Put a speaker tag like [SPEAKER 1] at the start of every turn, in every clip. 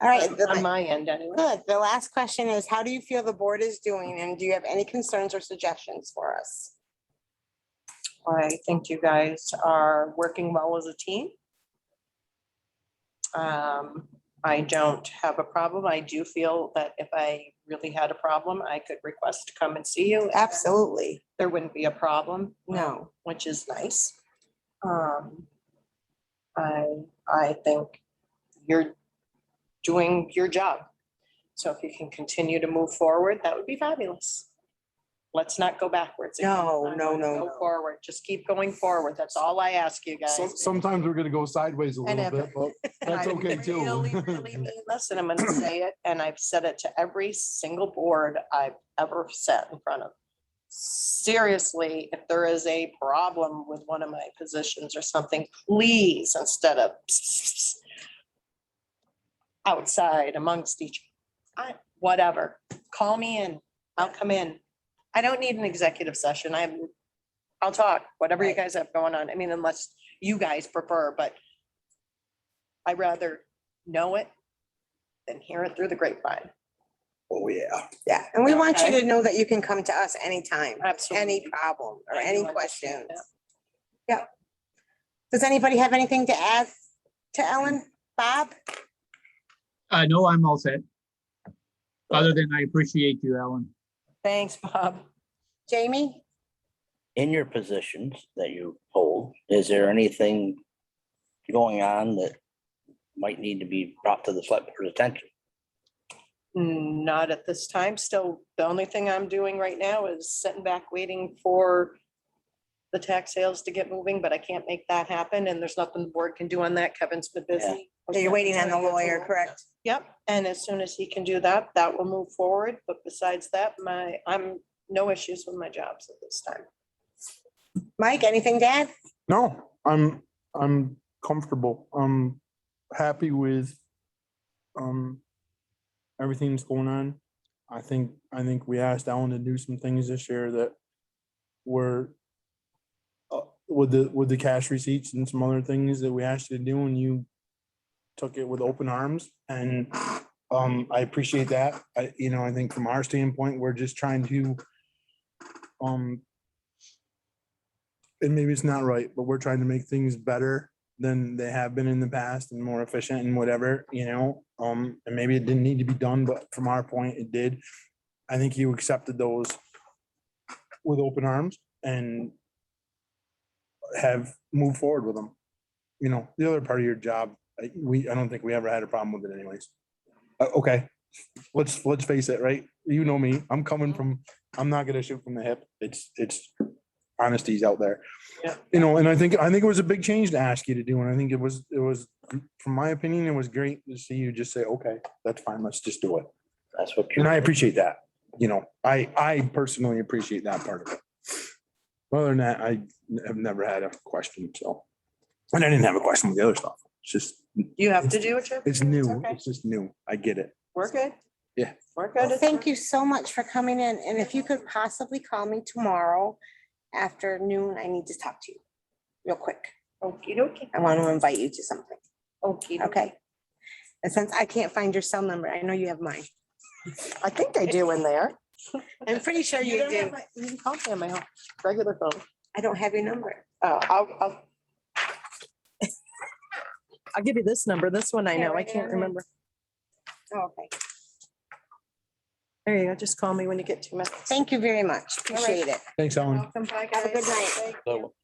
[SPEAKER 1] All right. the-
[SPEAKER 2] on my end anyway.
[SPEAKER 1] Good. The last question is, how do you feel the board is doing and do you have any concerns or suggestions for us?
[SPEAKER 2] I think you guys are working well as a team. Um, I don't have a problem. I do feel that if I really had a problem, I could request to come and see you.
[SPEAKER 1] Absolutely.
[SPEAKER 2] There wouldn't be a problem,
[SPEAKER 1] No.
[SPEAKER 2] which is nice. Um, I, I think you're doing your job. So if you can continue to move forward, that would be fabulous. Let's not go backwards. again.
[SPEAKER 3] Oh,
[SPEAKER 1] No, no,
[SPEAKER 2] I wanna
[SPEAKER 1] no,
[SPEAKER 2] go
[SPEAKER 1] no.
[SPEAKER 2] Forward, just keep going forward. That's all I ask you guys.
[SPEAKER 3] Some- Sometimes we're gonna go sideways a
[SPEAKER 2] And
[SPEAKER 3] little bit, but that's
[SPEAKER 2] I
[SPEAKER 3] okay
[SPEAKER 2] really,
[SPEAKER 3] too.
[SPEAKER 2] really mean this, and I'm gonna say it, and I've said it to every single board I've ever sat in front of. Seriously, if there is a problem with one of my positions or something, please, instead of outside amongst each, I, whatever, call me in, I'll come in. I don't need an executive session. I'm, I'll talk, whatever you
[SPEAKER 1] Right.
[SPEAKER 2] guys have going on. I mean, unless you guys prefer, but I rather know it than hear it through the grapevine.
[SPEAKER 4] Oh, yeah.
[SPEAKER 1] Yeah. And we want you
[SPEAKER 2] Okay.
[SPEAKER 1] to know that you can come to us anytime, any
[SPEAKER 2] Absolutely.
[SPEAKER 1] problem or
[SPEAKER 2] I do
[SPEAKER 1] any
[SPEAKER 2] understand
[SPEAKER 1] questions.
[SPEAKER 2] that.
[SPEAKER 1] Yep. Does anybody have anything to add to Ellen? Bob?
[SPEAKER 5] Uh, no, I'm all set. Other than I appreciate you, Alan.
[SPEAKER 2] Thanks, Bob.
[SPEAKER 1] Jamie?
[SPEAKER 6] in your positions that you hold, is there anything going on that might need to be brought to the select board's attention?
[SPEAKER 2] Not at this time. Still, the only thing I'm doing right now is sitting back waiting for the tax sales to get moving, but I can't make that happen and there's nothing the board can do on that. Kevin's been busy.
[SPEAKER 1] You're waiting on the lawyer, correct?
[SPEAKER 2] Yep, and as soon as he can do that, that will move forward. But besides that, my, I'm, no issues with my jobs at this time.
[SPEAKER 1] Mike, anything to add?
[SPEAKER 3] No, I'm, I'm comfortable. I'm happy with um, everything that's going on. I think, I think we asked Alan to do some things this year that were uh, with the, with the cash receipts and some other things that we asked you to do and you took it with open arms and um, I appreciate that. I, you know, I think from our standpoint, we're just trying to um, and maybe it's not right, but we're trying to make things better than they have been in the past and more efficient and whatever, you know? Um, and maybe it didn't need to be done, but from our point, it did. I think you accepted those with open arms and have moved forward with them. You know, the other part of your job, I- we, I don't think we ever had a problem with it anyways. Uh, okay, let's, let's face it, right? You know me, I'm coming from, I'm not gonna shoot from the hip. It's, it's honesty's out there.
[SPEAKER 2] Yeah.
[SPEAKER 3] You know, and I think, I think it was a big change to ask you to do, and I think it was, it was, from my opinion, it was great to see you just say, okay, that's fine, let's just do it.
[SPEAKER 6] That's what.
[SPEAKER 3] And I appreciate that, you know, I, I personally appreciate that part of it. Other than that, I have never had a question, so. And I didn't have a question with the other stuff, it's just,
[SPEAKER 2] You have to do what you. have to
[SPEAKER 3] it's
[SPEAKER 2] do.
[SPEAKER 3] new,
[SPEAKER 2] okay.
[SPEAKER 3] it's just new, I get it.
[SPEAKER 2] We're good.
[SPEAKER 3] Yeah.
[SPEAKER 2] We're good.
[SPEAKER 1] Thank you so much for coming in. And if you could possibly call me tomorrow after noon, I need to talk to you real quick.
[SPEAKER 2] Okey dokey.
[SPEAKER 1] I want to invite you to something.
[SPEAKER 2] Okey dokey.
[SPEAKER 1] Okay. And since I can't find your cell number, I know you have mine.
[SPEAKER 2] I think I do in there.
[SPEAKER 1] I'm pretty sure you
[SPEAKER 2] don't have
[SPEAKER 1] do.
[SPEAKER 2] my- You can call me on my home- regular phone.
[SPEAKER 1] I don't have your number.
[SPEAKER 2] Oh, I'll, I'll. I'll give you this number. This one I
[SPEAKER 1] Yeah,
[SPEAKER 2] know. I
[SPEAKER 1] write it
[SPEAKER 2] can't
[SPEAKER 1] down.
[SPEAKER 2] remember.
[SPEAKER 1] Oh, Okay.
[SPEAKER 2] There you go. Just call me when you get two minutes.
[SPEAKER 1] Thank you very much. Appreciate it.
[SPEAKER 3] Thanks, Alan.
[SPEAKER 2] Welcome back.
[SPEAKER 1] Have a good night.
[SPEAKER 6] So,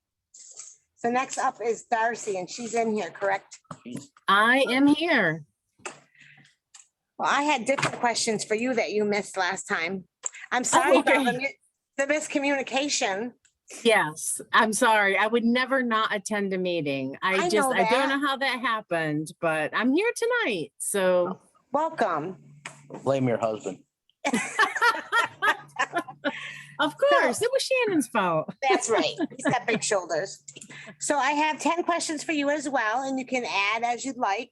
[SPEAKER 1] So next up is Darcy and she's in here, correct?
[SPEAKER 7] I am here.
[SPEAKER 1] Well, I had different questions for you that you missed last time. I'm sorry about the mi- the miscommunication.
[SPEAKER 7] Yes, I'm sorry. I would never not attend a meeting.
[SPEAKER 1] I
[SPEAKER 7] I just,
[SPEAKER 1] know
[SPEAKER 7] I
[SPEAKER 1] that.
[SPEAKER 7] don't know how that happened, but I'm here tonight. So
[SPEAKER 1] Welcome.
[SPEAKER 6] Blame your husband.
[SPEAKER 7] Oh, of course, it was Shannon's fault.
[SPEAKER 1] That's right. He's got big shoulders. So I have ten questions for you as well, and you can add as you'd like.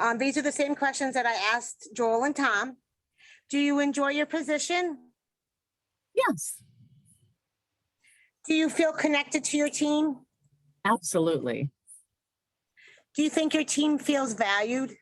[SPEAKER 1] Um, these are the same questions that I asked Joel and Tom. Do you enjoy your position?
[SPEAKER 7] Yes,
[SPEAKER 1] Do you feel connected to your team?
[SPEAKER 7] absolutely.
[SPEAKER 1] Do you think your team feels valued?